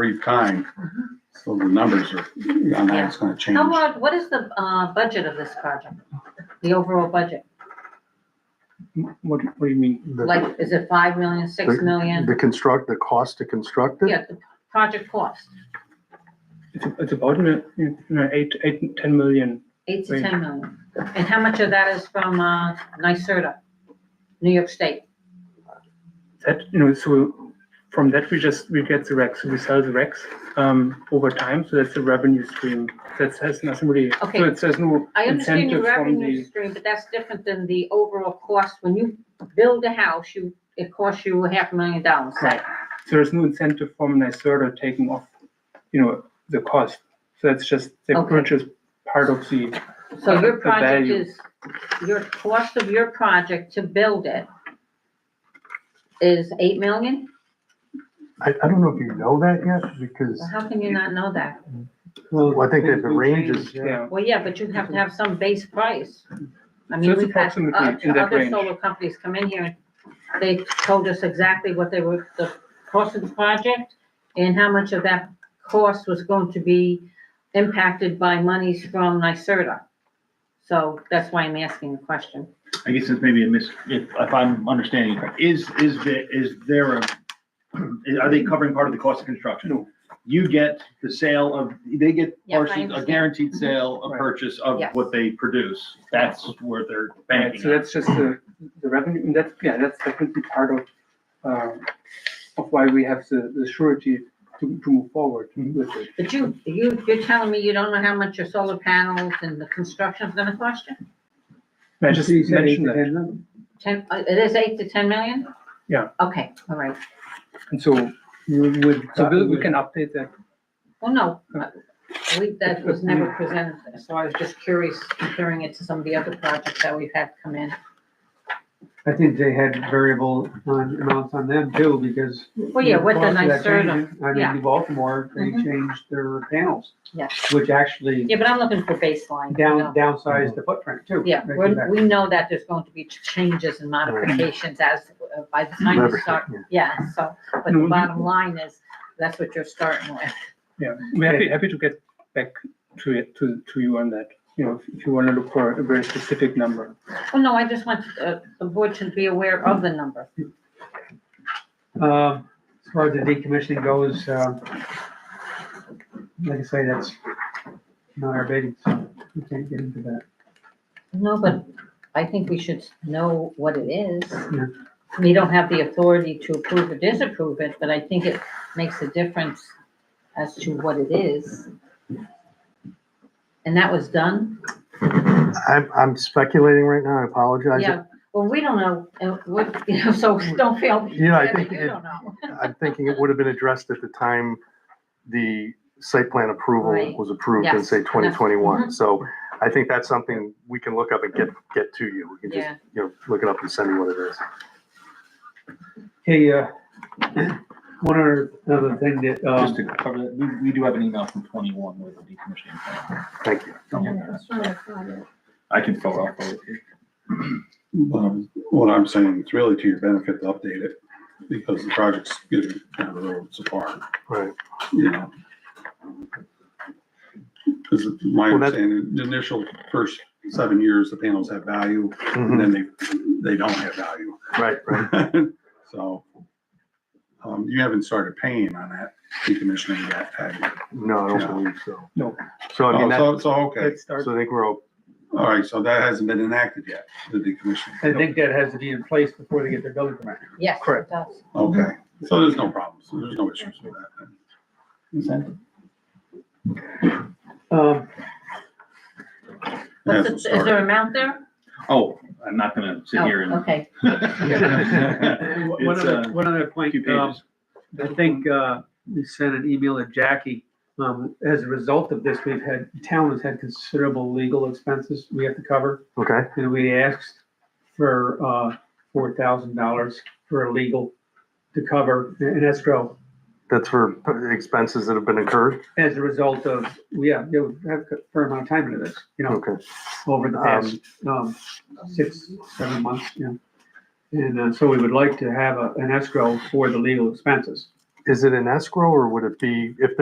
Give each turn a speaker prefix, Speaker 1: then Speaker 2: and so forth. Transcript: Speaker 1: brief time. So the numbers are, on that it's gonna change.
Speaker 2: How large, what is the, uh, budget of this project? The overall budget?
Speaker 3: What, what do you mean?
Speaker 4: The-
Speaker 2: Like, is it five million, six
Speaker 4: the-
Speaker 2: million?
Speaker 4: The construct, the cost to construct it?
Speaker 2: Yeah, the project cost,
Speaker 3: It's, it's about, you know, eight, eight, ten million.
Speaker 2: eight to
Speaker 3: Right.
Speaker 2: ten million. And how much of that is from, uh, NYSERDA, New York State?
Speaker 3: That, you know, so from that, we just, we get the recs, we sell the recs, um, over time, so that's a revenue stream. That has nothing really, so
Speaker 2: Okay.
Speaker 3: it says no
Speaker 2: I understand your
Speaker 3: incentive from
Speaker 2: revenue
Speaker 3: the,
Speaker 2: stream, but that's different than the overall cost. When you build a house, you, it costs you a half a million dollars, say.
Speaker 3: Right. so there's no incentive from NYSERDA taking off, you know, the cost. So that's just, they
Speaker 2: Okay.
Speaker 3: purchase part of the,
Speaker 2: So your
Speaker 3: The
Speaker 2: project
Speaker 3: value.
Speaker 2: is, your cost of your project to build it is eight million?
Speaker 4: I, I don't know if you know that yet, because
Speaker 2: Well, How can you not know that?
Speaker 4: well, I think that the range is,
Speaker 3: yeah.
Speaker 2: Well, yeah, but you have to have some base price. I
Speaker 3: So
Speaker 2: mean,
Speaker 3: it's
Speaker 2: we've had uh,
Speaker 3: approximately in
Speaker 2: other
Speaker 3: that
Speaker 2: other
Speaker 3: range.
Speaker 2: solar companies come in here and they told us exactly what they were, the cost of the project and how much of that cost was going to be impacted by monies from NYSERDA. So that's why I'm asking the question.
Speaker 5: I guess it's maybe a mis, if, if I'm understanding, correct. is, is the, is there a, are they covering part of the cost of construction?
Speaker 3: No.
Speaker 5: You get the sale of, they get
Speaker 2: Yes, I
Speaker 5: partially, a
Speaker 2: understand.
Speaker 5: guaranteed sale, a
Speaker 3: Mhm. Right.
Speaker 5: purchase of
Speaker 2: Yes.
Speaker 5: what they produce. That's where they're
Speaker 3: Right, so
Speaker 5: banking. on.
Speaker 3: that's just the, the revenue, and that's, yeah, that's definitely part of, um, of why we have the, the surety to, to move forward with it.
Speaker 2: But you, you, you're telling me you don't know how much your solar panels and the construction's gonna cost you?
Speaker 3: I just mentioned that,
Speaker 2: Ten, uh, it is eight to ten million?
Speaker 3: Yeah.
Speaker 2: Okay, all right.
Speaker 3: and so,
Speaker 4: you would.
Speaker 3: so Bill, we can update that,
Speaker 2: Well, no, uh, we, that was never presented, so I was just curious comparing it to some of the other projects that we've had come in.
Speaker 6: I think they had variable on amounts on them too, because.
Speaker 2: Well, yeah, with the
Speaker 6: cost of that
Speaker 2: NYSERDA,
Speaker 6: change, I mean,
Speaker 2: yeah.
Speaker 6: in Baltimore, they
Speaker 3: Mm-hmm.
Speaker 2: Mhm.
Speaker 6: changed their panels.
Speaker 2: Yeah.
Speaker 6: Which actually
Speaker 2: Yeah, but I'm looking for baseline. you know.
Speaker 6: down, downsized the footprint too.
Speaker 2: Yeah,
Speaker 6: They
Speaker 2: we,
Speaker 6: did that.
Speaker 2: we know that there's going to be ch- changes and modifications as, uh, by the time you
Speaker 4: Everything,
Speaker 2: start,
Speaker 4: yeah.
Speaker 2: yeah, so, but
Speaker 3: No,
Speaker 2: the
Speaker 3: you-
Speaker 2: bottom line is, that's what you're starting with.
Speaker 3: yeah, we're happy, happy to get back to it, to, to you on that, you know, if- if you wanna look for a very specific number.
Speaker 2: Well, no, I just want uh, the board to be aware of the number.
Speaker 6: Um, as far as the decommissioning goes, um, like I say, that's not our bidding, so we can't get into that.
Speaker 2: No, but I think we should know what it is.
Speaker 6: Yeah.
Speaker 2: We don't have the authority to approve or disapprove it, but I think it makes a difference as to what it is. And that was done?
Speaker 4: I'm, I'm speculating right now, I apologize.
Speaker 2: Yeah, well, we don't know, and what, you know, so don't feel.
Speaker 4: Yeah, I
Speaker 2: bad that
Speaker 4: think
Speaker 2: You
Speaker 4: it-
Speaker 2: don't know.
Speaker 4: I'm thinking it would have been addressed at the time the site plan approval
Speaker 2: Right.
Speaker 4: was approved in,
Speaker 2: Yes.
Speaker 4: say, twenty twenty-one.
Speaker 2: Mhm.
Speaker 4: So I think that's something we can look up and get, get to you. We can
Speaker 2: Yeah,
Speaker 4: just, you know, look it up and send you what it is.
Speaker 6: Hey, uh, one other, other thing that,
Speaker 7: Just
Speaker 6: um,
Speaker 7: to cover that, we, we do have an email from twenty-one with a decommissioning plan.
Speaker 4: Thank you.
Speaker 7: I can follow up with you.
Speaker 1: Um, What I'm saying, it's really to your benefit to update it because the project's getting down the road so far,
Speaker 4: Right.
Speaker 1: you know? Because my
Speaker 4: Well, that-
Speaker 1: understanding, the initial first seven years, the panels have value and
Speaker 4: Mhm.
Speaker 1: then they, they don't have value.
Speaker 4: Right, right.
Speaker 1: So, um, you haven't started paying on that decommissioning yet, have you?
Speaker 4: No, I
Speaker 1: Yeah.
Speaker 4: don't believe so.
Speaker 3: No.
Speaker 4: So I mean, that,
Speaker 1: Oh, So, so, okay,
Speaker 3: Let's start,
Speaker 4: so I think we're, all-
Speaker 1: all right, so that hasn't been enacted yet, the decommissioning.
Speaker 6: I think that has to be in place before they get their building permit.
Speaker 2: yes, it
Speaker 3: Correct.
Speaker 2: does.
Speaker 1: Okay, so there's no problems, there's no issues with that. then.
Speaker 3: Mm-hmm.
Speaker 6: Um,
Speaker 2: What's
Speaker 1: Hasn't
Speaker 2: the- Is there an amount there?
Speaker 7: Oh, I'm not gonna sit
Speaker 2: Oh,
Speaker 7: here and.
Speaker 2: Okay,
Speaker 6: One
Speaker 7: It's,
Speaker 6: other,
Speaker 7: uh,
Speaker 6: one other point,
Speaker 7: Two
Speaker 6: um,
Speaker 7: pages.
Speaker 6: I think, uh, we sent an email to Jackie. Um, as a result of this, we've had, town has had considerable legal expenses we have to cover.
Speaker 4: okay,
Speaker 6: And we asked for, uh, four thousand dollars for a legal to cover an escrow
Speaker 4: that's for expenses that have been incurred?
Speaker 6: as a result of, yeah, you have a fair amount of time into this, you know,
Speaker 4: Okay.
Speaker 6: over the past, um, six, seven months, you know. And, uh, so we would like to have a, an escrow for the legal expenses.
Speaker 4: is it an escrow or would it be, if there